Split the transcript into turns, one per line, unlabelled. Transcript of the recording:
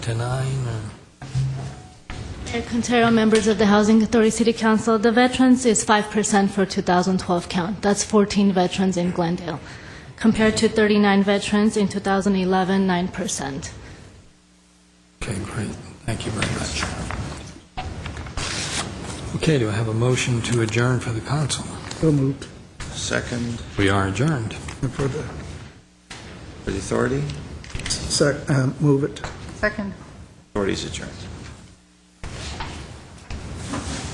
to nine, uh, or
Mayor Quintero, members of the Housing Authority City Council, the veterans is 5% for 2012 count. That's 14 veterans in Glendale, compared to 39 veterans in 2011, 9%.
okay, great, thank you very much. Okay, do I have a motion to adjourn for the council?
So moved.
Second
We are adjourned.
And for the
for the authority.
sec, um, move it.
Second.
Authority's adjourned.